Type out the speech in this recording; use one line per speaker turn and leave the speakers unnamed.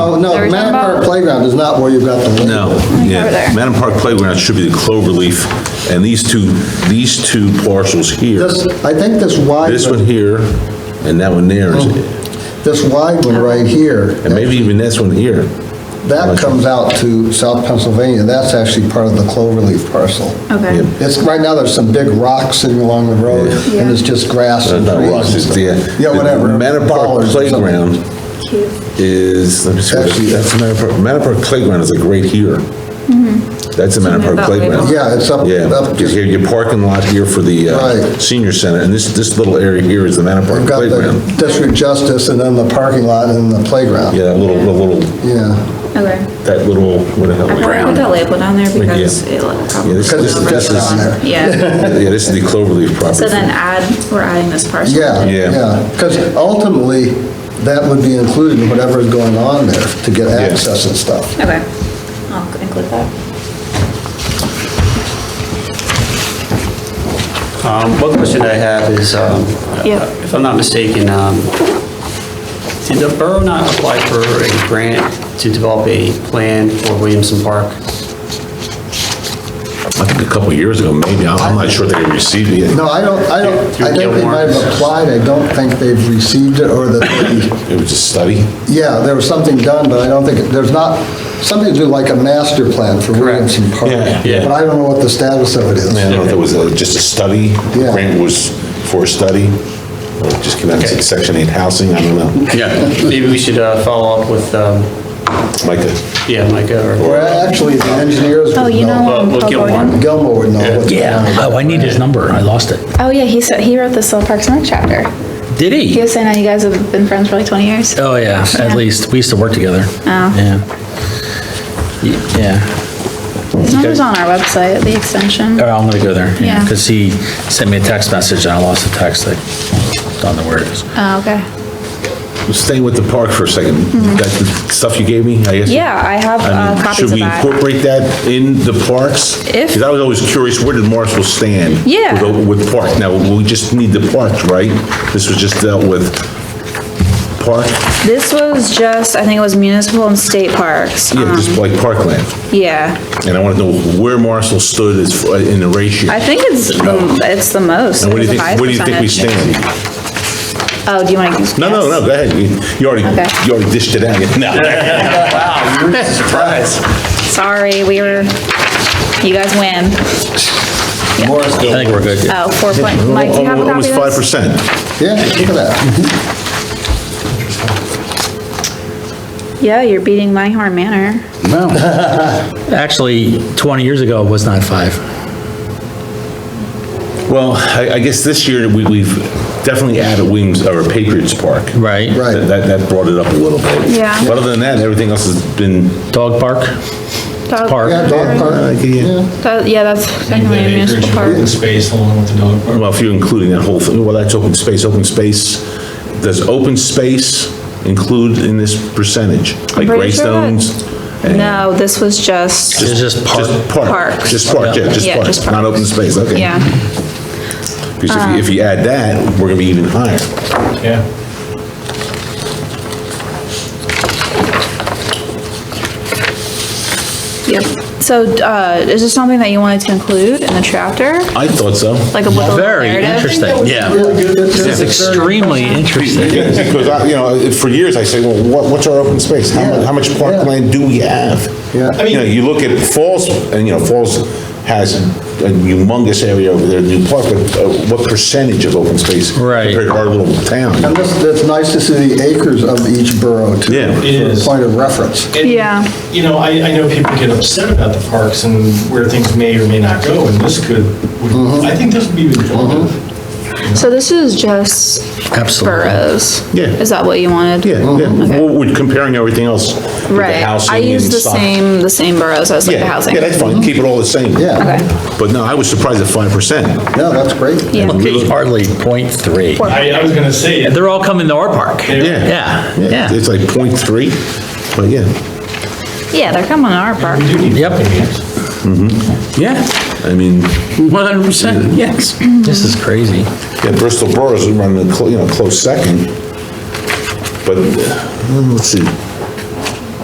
Oh, no,
There is
Manor
no
Park
mo-
Playground is not where you've got the.
No, yeah. Madam Park Playground should be the Cloverleaf, and these two, these two parcels here,
This, I think this wide,
this one
one-
here, and that one there, is-
this wide one right here,
and maybe even this one here.
that comes out to South Pennsylvania, that's actually part of the Cloverleaf parcel.
Okay.
It's, right now, there's some big rocks sitting along the road, and it's just grass
Uh,
and
Not
trees.
rocks,
and
it's
stuff.
the.
Yeah, whatever.
the Manor Park
Dollars or something.
Playground is, let me see,
Actually-
that's the Manor Park, Manor Park Playground is like right here. That's the Manor
Mm-hmm. Something
Park
about label.
Playground.
Yeah, it's up,
Yeah,
up,
because here, your parking lot here for the uh,
Right.
senior center, and this, this little area here is the Manor Park
you've got
Playground.
the district justice, and then the parking lot, and the playground.
Yeah, that little, the little,
Yeah,
Okay.
that little, what the hell?
I probably put that label down there because
Yeah.
it will
Yeah,
probably.
this- this-
over
this
the
is-
line. Yeah,
Yeah, this is the Cloverleaf property.
so then add, we're adding this parcel.
yeah,
Yeah.
yeah, because ultimately, that would be included in whatever is going on there to get access and stuff.
Okay, I'll include that.
Um, One question I have is, um,
Yeah.
if I'm not mistaken, um, did the borough not apply for a grant to develop a plan for Williamson Park?
I think a couple years ago, maybe, I'm I'm not sure they received it. yet.
No, I don't, I don't,
Through
I think they might have
Gilmore's.
applied, I don't think they've received it, or that,
It was a study.
they- yeah, there was something done, but I don't think, it- there's not, something to do like a master plan for Williamson Park.
Yeah,
yeah.
But I don't know what the status of it is.
I don't know if it was uh, just a study, the
Yeah.
grant was for a study, or it just came out and said Section 8 housing, I don't know.
Yeah. Maybe we should uh, follow up with, um,
Micah,
yeah, Micah or...
Or actually, the engineers
Oh,
would
you know,
know.
Well,
um,
we'll
Paul
get one.
Gordon.
Gilmore would know what's going on.
Oh, I need his number. I lost it.
Oh, yeah, he said, he wrote the Soul Parks and Rec chapter.
Did
He
he?
was saying that you guys have been friends for like 20 years.
Oh, yeah,
Yeah.
at least. We used to work together.
Oh.
Yeah. Y- Yeah.
His number's on our website, the extension.
All right, I'm gonna go there.
Yeah.
Because he sent me a text message and I lost the text. I don't know where it is.
Oh, okay.
staying with the park for a second, that stuff you gave me, I guess?
Mm-hmm. Yeah, I have
I
uh,
mean,
copies
Should
of
we
that.
incorporate that in the parks?
If-
Because I was always curious, where did Marshall stand?
Yeah.
with the- With park, now, we just need the park, right? This was just dealt with park,
This was just, I think it was municipal and state parks.
yeah,
um,
just like parkland.
Yeah,
And I want to know where Marshall stood as, f- in the ratio.
I think it's, the- it's the most.
And what do you
It's a
think,
high
where do you think we
percentage.
stand?
Oh, do you want to?
No, no, no, go ahead, you you already,
Okay.
you already dished it out, no.
Sorry, we were, you guys win.
Morris,
I think we're good.
Oh, four point, Mike, do you have a copy
Almost five
of this?
percent.
yeah, look at that.
Yeah, you're beating Minehorn Manor.
Actually, 20 years ago, it was not five.
Well, I, I guess this year, we, we've definitely added Williams, or Patriots Park.
Right.
Right.
That, that- that brought it up a little bit.
Yeah.
But other than that, everything else has been,
Dog park? park.
Yeah, dog park, yeah.
That- Yeah, that's technically a municipal park.
Open space along with the dog park.
well, if you're including that whole thing, well, that's open space, open space, does open space include in this percentage? Like
pretty sure that-
Greystones? and-
No, this was just,
It's just park.
Just park,
Parks.
just park, yeah, just
Yeah, just
park, not open space, okay.
yeah,
Because if you, if you add that, we're gonna be even higher.
Yeah.
yep. So, uh, is this something that you wanted to include in the chapter?
I thought so.
Like a little
Very
narrative?
interesting.
Really good. It's
It's
very-
extremely interesting.
Yeah, Because, I- you know, for years I say, well, what, what's our open space? How much, how much parkland do we have?
Yeah. I
You know, you look at Falls, and you know, Falls has a humongous area over there, new park, but uh, what percentage of open space?
Right.
Compared to our little town?
And this, that's nice to see the acres of each borough too.
Yeah. It
for a
is.
Point of reference.
And,
Yeah.
You know, I, I know people get upset about the parks and where things may or may not go, and this could, would- I think this would be informative.
So this is just
Absolutely.
boroughs?
Yeah.
Is that what you wanted?
Yeah, yeah,
Okay.
Well, we're comparing everything else. with the
Right.
housing
I use
and
the
stuff.
same, the same boroughs as like the
Yeah,
housing.
yeah, that's fine, keep it all the same.
Yeah.
Okay.
But no, I was surprised at five percent.
Yeah, that's great.
Yeah.
It's Hardly point three.
I, I was gonna say,
They're all coming to our park.
Yeah.
Yeah, yeah.
It's like point three, but yeah,
Yeah, they're coming to our park.
we do need.
Yep.
Yep.
Mm-hmm. Yeah,
I mean,
100%, yes. This is crazy.
yeah, Bristol Boroughs is running, a clo- you know, close second. But, uh, let's see,